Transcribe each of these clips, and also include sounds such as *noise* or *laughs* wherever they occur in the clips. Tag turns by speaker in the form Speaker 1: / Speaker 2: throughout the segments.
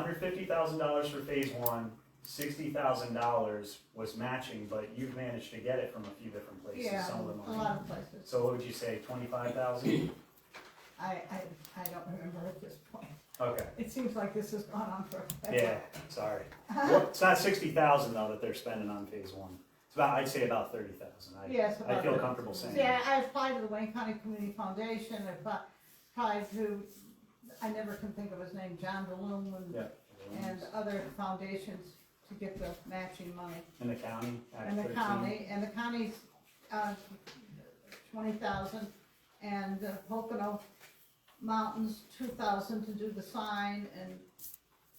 Speaker 1: hundred fifty thousand dollars for phase one, sixty thousand dollars was matching, but you've managed to get it from a few different places,
Speaker 2: Yeah,
Speaker 1: some of the
Speaker 2: a
Speaker 1: money.
Speaker 2: lot of places.
Speaker 1: So what would you say, twenty-five thousand?
Speaker 2: I, I, I don't remember at this point. *laughs*
Speaker 1: Okay,
Speaker 2: It seems like this has gone on for. *laughs*
Speaker 1: yeah, sorry.
Speaker 2: Uh-huh.
Speaker 1: Well, It's not sixty thousand though that they're spending on phase one. It's about, I'd say about thirty thousand. I,
Speaker 2: Yes.
Speaker 1: I
Speaker 2: about
Speaker 1: feel
Speaker 2: that.
Speaker 1: comfortable saying. that.
Speaker 2: Yeah, I applied to the Wayne County Community Foundation, I appli- applied to, I never can think of his name, John Balloon and,
Speaker 1: Yeah.
Speaker 2: and other foundations to get the matching money.
Speaker 1: In the county, Act
Speaker 2: And the
Speaker 1: 13.
Speaker 2: county, and the county's, uh, twenty thousand, and the Pocono Mountains, two thousand to do the sign, and,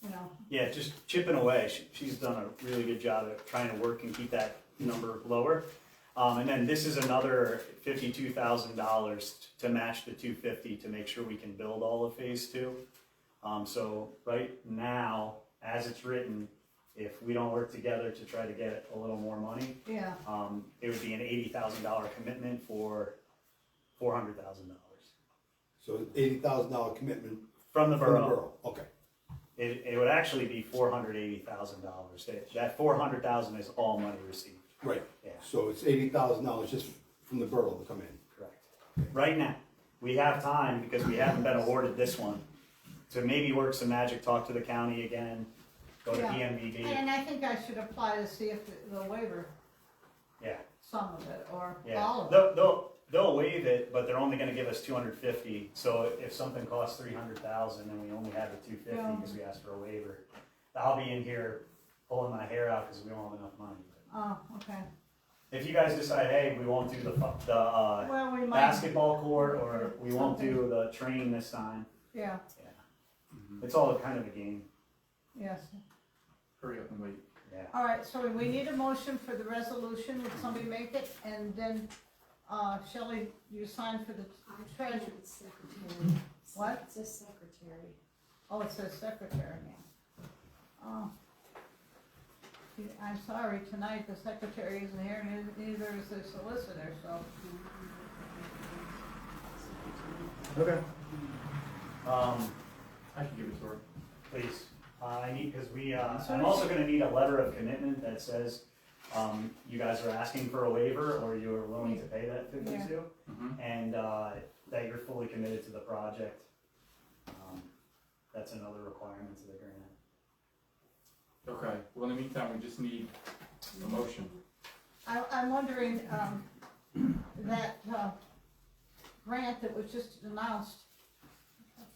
Speaker 2: you know,
Speaker 1: Yeah, just chipping away. She, she's done a really good job at trying to work and keep that number lower. Um, and then this is another fifty-two thousand dollars to match the two fifty to make sure we can build all of phase two. Um, so right now, as it's written, if we don't work together to try to get a little more money,
Speaker 2: yeah,
Speaker 1: um, it would be an eighty thousand dollar commitment for four hundred thousand dollars
Speaker 3: So eighty thousand dollar commitment
Speaker 1: from the
Speaker 3: from the
Speaker 1: borough.
Speaker 3: borough, okay.
Speaker 1: It, it would actually be four hundred eighty thousand dollars. That four hundred thousand is all money received.
Speaker 3: Right,
Speaker 1: Yeah.
Speaker 3: so it's eighty thousand dollars just from the borough to come in.
Speaker 1: Correct. Right now, we have time because we haven't been awarded this one to maybe work some magic, talk to the county again, go to
Speaker 2: Yeah.
Speaker 1: PMDD.
Speaker 2: and I think I should apply to see if the the waiver,
Speaker 1: Yeah,
Speaker 2: some of it, or all
Speaker 1: yeah.
Speaker 2: of it.
Speaker 1: They'll, they'll, they'll waive it, but they're only gonna give us two hundred fifty. So if something costs three hundred thousand and we only have the two fifty because we asked for a waiver, I'll be in here pulling my hair out because we don't have enough money.
Speaker 2: Oh, okay,
Speaker 1: If you guys decide, hey, we won't do the, fu- the, uh,
Speaker 2: well, we might,
Speaker 1: basketball court or we won't do the train this time.
Speaker 2: yeah,
Speaker 4: Mm-hmm.
Speaker 1: It's all kind of a game.
Speaker 2: yes,
Speaker 5: Hurry up and wait.
Speaker 1: Yeah.
Speaker 2: all right, so we need a motion for the resolution, would somebody make it, and then, uh, Shelley, you sign for the
Speaker 6: I
Speaker 2: treasurer.
Speaker 6: treasured secretary.
Speaker 2: What?
Speaker 6: It says secretary.
Speaker 2: Oh, it says secretary now. Oh. See, I'm sorry, tonight the secretary isn't here, and neither is the solicitor, so,
Speaker 1: Okay. Um,
Speaker 5: I can give it to her.
Speaker 1: please, uh, I need, because we, uh,
Speaker 2: So
Speaker 1: I'm
Speaker 2: does-
Speaker 1: also gonna need a letter of commitment that says, um, you guys are asking for a waiver or you are willing to pay that fifty-two.
Speaker 5: Mhm.
Speaker 1: And, uh, that you're fully committed to the project. Um, That's another requirement to the grant.
Speaker 5: Okay, well, in the meantime, we just need a motion.
Speaker 2: I, I'm wondering, um, that, uh, grant that was just announced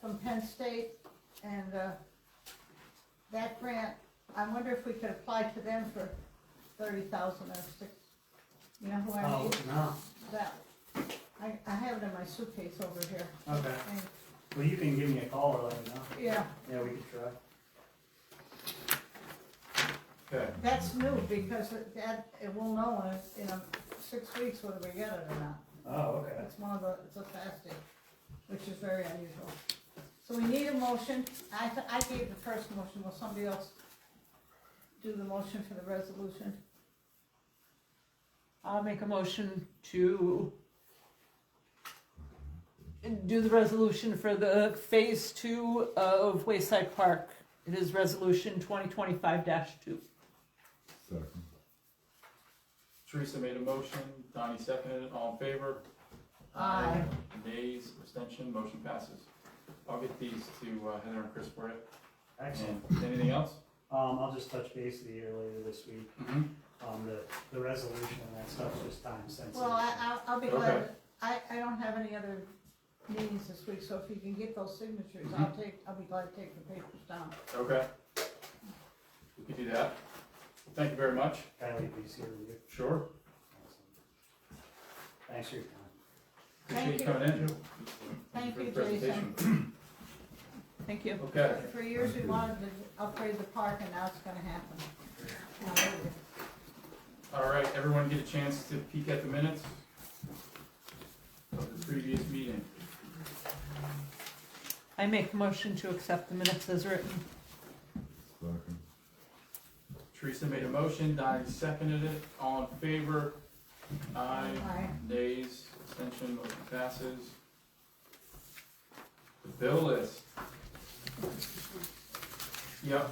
Speaker 2: from Penn State, and, uh, that grant, I wonder if we could apply to them for thirty thousand or six, you know who
Speaker 1: Oh.
Speaker 2: I mean?
Speaker 4: Oh, no,
Speaker 2: That, I, I have it in my suitcase over here,
Speaker 4: okay.
Speaker 2: and,
Speaker 4: Well, you can give me a call or let me know.
Speaker 2: yeah.
Speaker 4: Yeah, we could try.
Speaker 5: Okay,
Speaker 2: That's new because it- that, it will know in, a- in a six weeks whether we get it or not.
Speaker 4: Oh, okay.
Speaker 2: It's one of the, it's a fasting, which is very unusual. So we need a motion. I, th- I gave the first motion. Will somebody else do the motion for the resolution?
Speaker 7: I'll make a motion to do the resolution for the phase two of Wayside Park. It is resolution twenty twenty-five two.
Speaker 8: Second.
Speaker 5: Teresa made a motion, Donnie seconded it, all in favor?
Speaker 2: Aye.
Speaker 5: Nays, abstention, motion passes. I'll get these to uh, Heather and Chris for it.
Speaker 1: Excellent.
Speaker 5: And anything else?
Speaker 1: Um, I'll just touch base with you later this week.
Speaker 5: Mhm.
Speaker 1: Um, the, the resolution and that stuff's just time sensitive.
Speaker 2: Well, I, I'll, I'll be glad.
Speaker 5: Okay.
Speaker 2: I, I don't have any other meetings this week, so if you can get those signatures, I'll
Speaker 5: Mm-hmm.
Speaker 2: take, I'll be glad to take the papers down.
Speaker 5: Okay. We can do that. Thank you very much.
Speaker 1: Kylie, please hear you.
Speaker 5: Sure.
Speaker 1: Thanks for your time.
Speaker 5: Appreciate
Speaker 2: Thank you.
Speaker 5: coming in.
Speaker 2: Thank
Speaker 5: for
Speaker 2: you,
Speaker 5: the presentation.
Speaker 7: Thank you.
Speaker 5: Okay,
Speaker 2: For years, we wanted to upgrade the park and now it's gonna happen. Now,
Speaker 5: all right, everyone get a chance to peek at the minutes of the previous meeting.
Speaker 7: I make a motion to accept the minutes as written.
Speaker 8: Second.
Speaker 5: Teresa made a motion, Donnie seconded it, all in favor? Aye,
Speaker 2: Aye.
Speaker 5: nays, abstention, motion passes. The bill list, Yep.